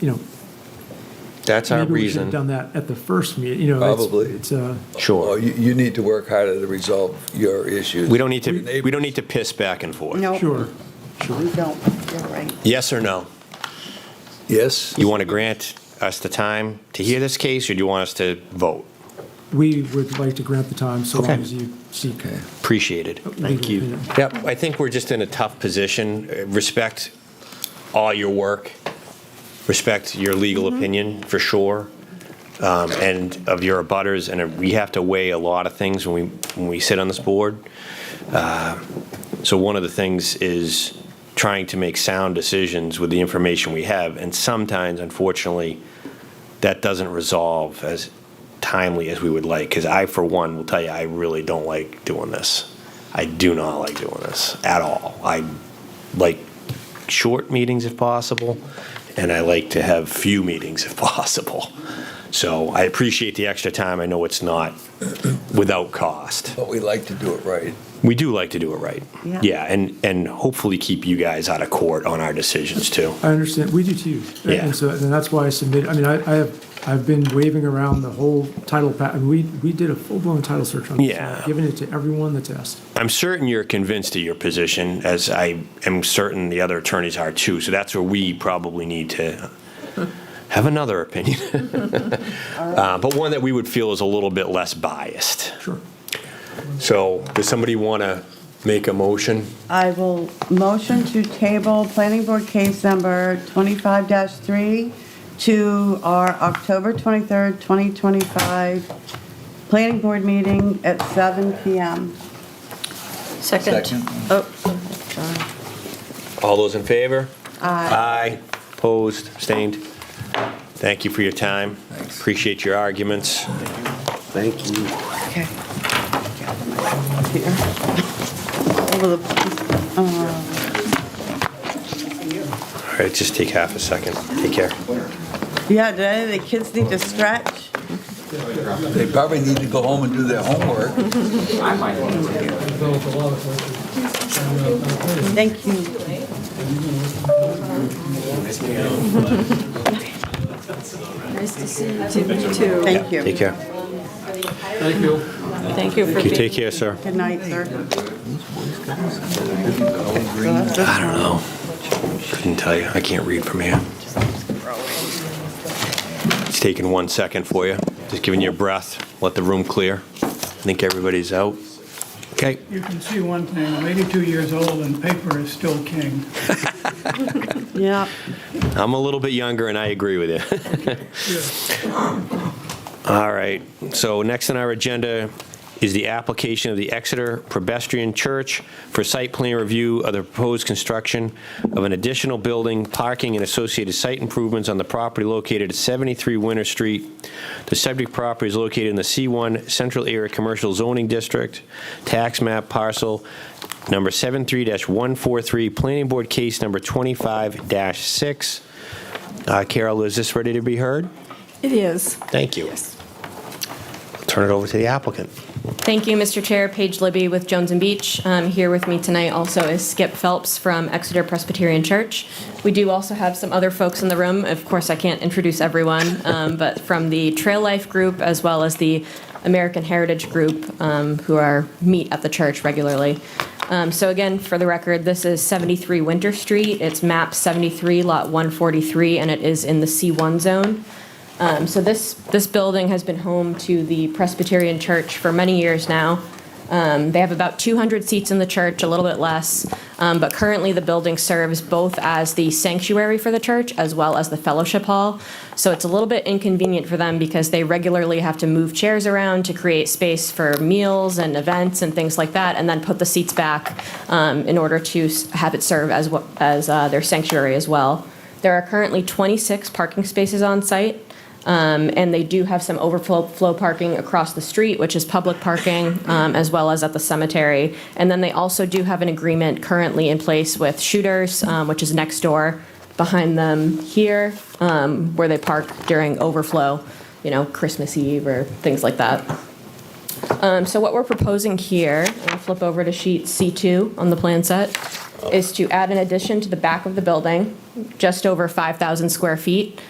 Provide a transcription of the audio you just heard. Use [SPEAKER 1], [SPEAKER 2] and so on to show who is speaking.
[SPEAKER 1] you know.
[SPEAKER 2] That's our
[SPEAKER 1] maybe we should have
[SPEAKER 2] reason.
[SPEAKER 1] Done that at the first meeting, you know. it's-
[SPEAKER 3] Probably.
[SPEAKER 1] It's, uh,
[SPEAKER 3] Well,
[SPEAKER 2] Sure.
[SPEAKER 3] You, you need to work harder to resolve your issues.
[SPEAKER 2] We don't need
[SPEAKER 3] Your
[SPEAKER 2] to,
[SPEAKER 3] neighbors.
[SPEAKER 2] we don't need to piss back and forth.
[SPEAKER 4] No,
[SPEAKER 1] sure.
[SPEAKER 4] we don't. You're right.
[SPEAKER 2] Yes or no?
[SPEAKER 3] Yes?
[SPEAKER 2] You want to grant us the time to hear this case, or do you want us to vote?
[SPEAKER 1] We would like to grant the time so long
[SPEAKER 2] Okay.
[SPEAKER 1] as you seek.
[SPEAKER 3] Okay.
[SPEAKER 2] Appreciate it.
[SPEAKER 1] Oh, Thank you. opinion.
[SPEAKER 2] Yep, I think we're just in a tough position. Uh, Respect all your work, respect your legal
[SPEAKER 1] Mm-hmm.
[SPEAKER 2] opinion, for sure, um, and of your abutters, and uh, we have to weigh a lot of things when we, when we sit on this board. Uh, So one of the things is trying to make sound decisions with the information we have, and sometimes, unfortunately, that doesn't resolve as timely as we would like, because I, for one, will tell you, I really don't like doing this. I do not like doing this at all. I like short meetings if possible, and I like to have few meetings if possible. So I appreciate the extra time. I know it's not without cost.
[SPEAKER 3] But we like to do it right.
[SPEAKER 2] We do like to do it right.
[SPEAKER 4] Yeah.
[SPEAKER 2] Yeah, and, and hopefully keep you guys out of court on our decisions, too.
[SPEAKER 1] I understand, we do too.
[SPEAKER 2] Yeah.
[SPEAKER 1] And so, and that's why I submitted, I mean, I, I have, I've been waving around the whole title pa, and we, we did a full-blown title search on this. and
[SPEAKER 2] Yeah.
[SPEAKER 1] Giving it to everyone that's asked.
[SPEAKER 2] I'm certain you're convinced of your position, as I am certain the other attorneys are too. So that's where we probably need to have another opinion, uh, but one that we would feel is a little bit less biased.
[SPEAKER 1] Sure.
[SPEAKER 2] So, does somebody want to make a motion?
[SPEAKER 4] I will motion to table planning board case number 25-3 to our October 23rd, 2025 planning board meeting at 7 PM.
[SPEAKER 5] Second.
[SPEAKER 3] Second.
[SPEAKER 5] Oh, sorry.
[SPEAKER 2] All those in favor? Aye. Aye. Opposed? Abstained? Thank you for your time.
[SPEAKER 3] Thanks.
[SPEAKER 2] Appreciate your arguments.
[SPEAKER 6] Thank you.
[SPEAKER 4] Okay. Here. Over the- uh,
[SPEAKER 2] All right, just take half a second. Take care.
[SPEAKER 4] Yeah, do any of the kids need to stretch?
[SPEAKER 3] They probably need to go home and do their homework.
[SPEAKER 4] Thank you.
[SPEAKER 5] Nice to see you too.
[SPEAKER 4] Thank you.
[SPEAKER 2] Take care.
[SPEAKER 5] Thank you for
[SPEAKER 2] You take
[SPEAKER 5] being.
[SPEAKER 2] care, sir.
[SPEAKER 4] Good night, sir.
[SPEAKER 2] I don't know. Couldn't tell you. I can't read from here. It's taking one second for you. Just giving you a breath. Let the room clear. I think everybody's out. Okay.
[SPEAKER 7] You can see one thing, I'm 82 years old and paper is still king.
[SPEAKER 4] Yeah.
[SPEAKER 2] I'm a little bit younger, and I agree with you. All right. So next on our agenda is the application of the Exeter Presbyterian Church for site plan review of the proposed construction of an additional building, parking, and associated site improvements on the property located at 73 Winter Street. The subject property is located in the C1 Central Area Commercial Zoning District, tax map parcel number 73-143, Planning Board case number 25-6. Uh, Carol, is this ready to be heard?
[SPEAKER 5] It is.
[SPEAKER 2] Thank you. Turn it over to the applicant.
[SPEAKER 8] Thank you, Mr. Chair. Paige Libby with Jones and Beach. Um, Here with me tonight also is Skip Phelps from Exeter Presbyterian Church. We do also have some other folks in the room. Of course, I can't introduce everyone, um, but from the Trail Life Group as well as the American Heritage Group, um, who are, meet at the church regularly. Um, So again, for the record, this is 73 Winter Street. It's map 73, lot 143, and it is in the C1 zone. Um, So this, this building has been home to the Presbyterian Church for many years now. Um, They have about 200 seats in the church, a little bit less, um, but currently the building serves both as the sanctuary for the church as well as the fellowship hall. So it's a little bit inconvenient for them because they regularly have to move chairs around to create space for meals and events and things like that, and then put the seats back um, in order to s- have it serve as, wha- as uh, their sanctuary as well. There are currently 26 parking spaces on site. Um, And they do have some overflow flow parking across the street, which is public parking, um, as well as at the cemetery. And then they also do have an agreement currently in place with Shooters, um, which is next door behind them here, um, where they park during overflow, you know, Christmas Eve or things like that. Um, So what we're proposing here, I'll flip over to sheet C2 on the plan set, is to add an addition to the back of the building, just over 5,000 square feet.